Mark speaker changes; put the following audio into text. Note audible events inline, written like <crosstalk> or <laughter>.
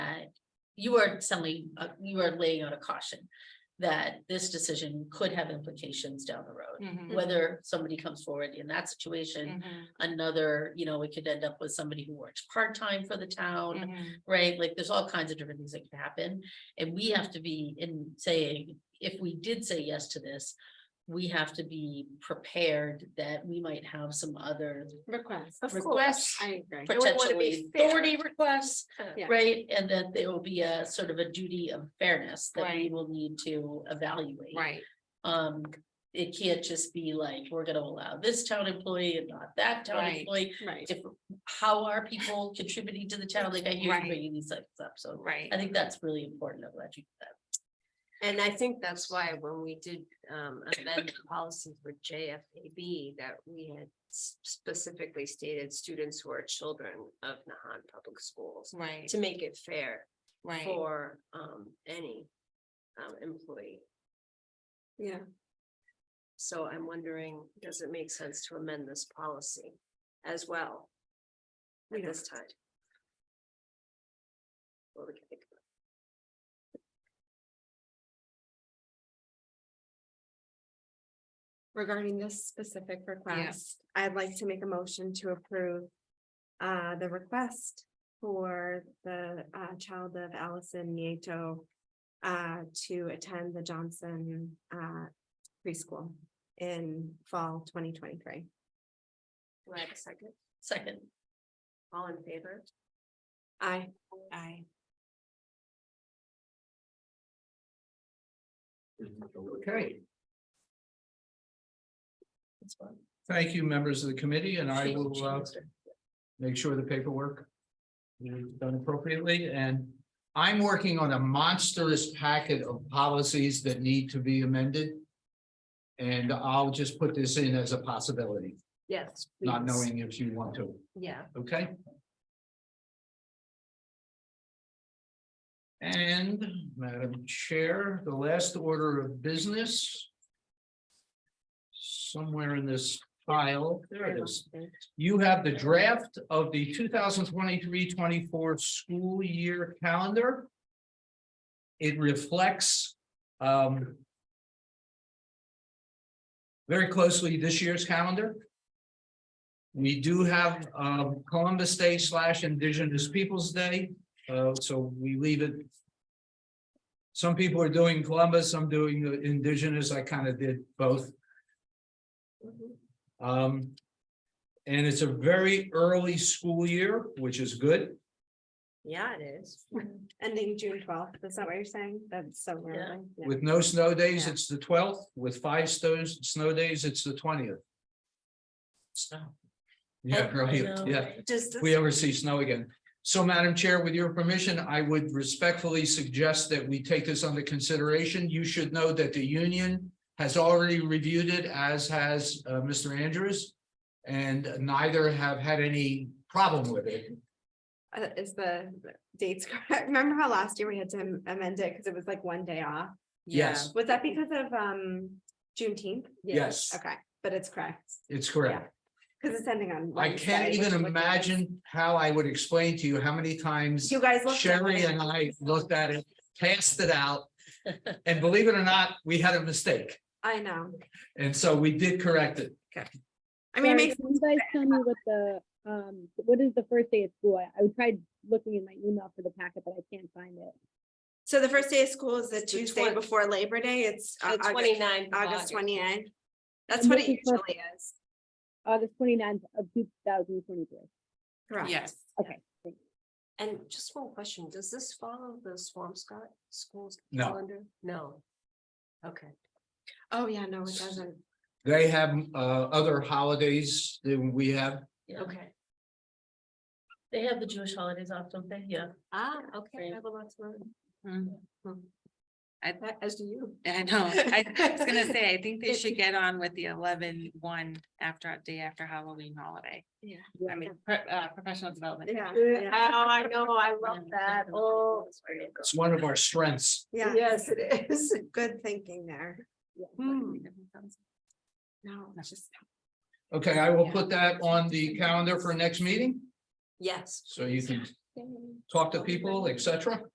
Speaker 1: you are suddenly, uh, you are laying out a caution. That this decision could have implications down the road,
Speaker 2: Mhm,
Speaker 1: whether somebody comes forward in that
Speaker 3: Mm-hmm.
Speaker 1: situation,
Speaker 2: mhm,
Speaker 1: another, you know, we could end up with somebody who works part-time for the town.
Speaker 3: Mm-hmm.
Speaker 2: mhm,
Speaker 1: Right, like there's all kinds of different things that can happen, and we have to be in saying, if we did say yes to this. We have to be prepared that we might have some other
Speaker 3: Request.
Speaker 2: Of
Speaker 1: requests
Speaker 2: course, I agree.
Speaker 3: we wanna
Speaker 1: potentially
Speaker 3: be fair.
Speaker 1: authority requests,
Speaker 3: Yeah.
Speaker 1: right? And that there will be a sort of a duty of fairness that we
Speaker 2: Right.
Speaker 1: will need to evaluate.
Speaker 2: Right,
Speaker 1: Um, it can't just be like, we're gonna allow this town employee and not that town
Speaker 2: Right.
Speaker 1: employee.
Speaker 3: Right.
Speaker 1: Different, how are people contributing to the town? Like I hear you
Speaker 2: Right.
Speaker 1: bringing these things up, so
Speaker 2: right.
Speaker 1: I think that's really important. I'm glad you did that.
Speaker 3: And I think that's why when we did um amend the policy for JFAB, that we had s- specifically stated students who are children of Nahan Public Schools.
Speaker 2: Right,
Speaker 3: To make it fair
Speaker 2: right.
Speaker 3: for um any um employee. Yeah. So I'm wondering, does it make sense to amend this policy as well? At this time? Well, we can think about
Speaker 4: regarding this specific request, I'd like to make a motion to approve uh, the request for the uh, child of Allison Nieto uh, to attend the Johnson uh, preschool in fall twenty twenty-three.
Speaker 3: it. Do I have a second?
Speaker 1: Second,
Speaker 3: All in favor?
Speaker 4: I,
Speaker 2: I,
Speaker 3: Okay.
Speaker 5: Thank you, members of the committee, and I
Speaker 1: Thank you,
Speaker 5: will uh,
Speaker 1: Chancellor.
Speaker 5: make sure the paperwork is done appropriately, and I'm working on a monstrous packet of policies that need to be amended. And I'll just put this in as a possibility,
Speaker 3: Yes.
Speaker 5: not
Speaker 3: please.
Speaker 5: knowing if you want to,
Speaker 3: Yeah,
Speaker 5: okay? And Madam Chair, the last order of business somewhere in this file, there it is. You have the draft of the 2023-24 school year calendar. It reflects um, very closely this year's calendar. We do have um, Columbus Day slash Indigenous Peoples' Day, uh, so we leave it. Some people are doing Columbus, some doing the Indigenous. I kind of did both. Um, and it's a very early school year, which is good.
Speaker 3: yeah, it is.
Speaker 4: <laughs> ending June twelfth, is that what you're saying? That's so early. Yeah.
Speaker 5: With no snow days,
Speaker 3: Yeah.
Speaker 5: it's the twelfth. With five snows, snow days, it's the twentieth. Yeah, right,
Speaker 1: No,
Speaker 5: yeah,
Speaker 1: right.
Speaker 3: Does
Speaker 5: if
Speaker 3: this-
Speaker 5: we ever see snow again. So Madam Chair, with your permission, I would respectfully suggest that we take this under consideration. You should know that the union has already reviewed it, as has uh, Mr. Andrews. And neither have had any problem with it.
Speaker 4: Uh, Is the dates <laughs> correct? Remember how last year we had to amend it because it was like one day off?
Speaker 5: Yes.
Speaker 4: Was that because of um Juneteenth?
Speaker 5: Yes,
Speaker 4: Okay, but it's correct,
Speaker 5: it's correct.
Speaker 4: because it's ending on.
Speaker 5: I
Speaker 4: Wednesday,
Speaker 5: can't
Speaker 4: which
Speaker 5: even
Speaker 4: would be-
Speaker 5: imagine how I would explain to you how many times
Speaker 4: You guys looked. at
Speaker 5: Sherry
Speaker 4: it.
Speaker 5: and I looked at it, passed it out. And believe it or not, we had a mistake.
Speaker 4: I know.
Speaker 5: And so we did correct it.
Speaker 4: I mean, it
Speaker 6: Sorry,
Speaker 4: makes,
Speaker 6: can you guys tell me what the, um, what is the first day of school? I, I tried looking in my email for the packet, but I can't find it.
Speaker 4: so the first day of school is the
Speaker 3: The
Speaker 4: Tuesday
Speaker 3: twen-
Speaker 4: before Labor Day. It's uh,
Speaker 3: The
Speaker 4: August,
Speaker 3: 29th of
Speaker 4: August
Speaker 3: August.
Speaker 4: 29th. That's
Speaker 6: I'm
Speaker 4: what it
Speaker 6: looking for-
Speaker 4: usually is.
Speaker 6: August 29th of two thousand twenty-three.
Speaker 4: Correct.
Speaker 2: yes,
Speaker 3: And just one question, does this follow the Swampscott schools
Speaker 5: No.
Speaker 3: calendar? No. Okay,
Speaker 4: Oh, yeah, no, it doesn't.
Speaker 5: They have uh other holidays than we have.
Speaker 1: Yeah.
Speaker 3: okay.
Speaker 1: They have the Jewish holidays off, don't they? Yeah.
Speaker 3: Ah,
Speaker 1: Right.
Speaker 3: okay. I will not learn.
Speaker 2: Mhm. I,
Speaker 3: As do you.
Speaker 2: I know,
Speaker 3: <laughs>
Speaker 2: I was gonna say, I think they should get on with the eleven one after, day after Halloween holiday.
Speaker 4: Yeah.
Speaker 2: I mean, pro- uh, professional development.
Speaker 4: Yeah.
Speaker 3: Oh,
Speaker 4: yeah,
Speaker 3: I know, I love that. Oh.
Speaker 5: It's one of our strengths.
Speaker 4: Yeah.
Speaker 3: Yes, it is.
Speaker 4: Good thinking there.
Speaker 3: Hmm.
Speaker 4: No, it's just.
Speaker 5: Okay, I will put that on the calendar for next meeting,
Speaker 3: Yes.
Speaker 5: so you can talk to people, etc.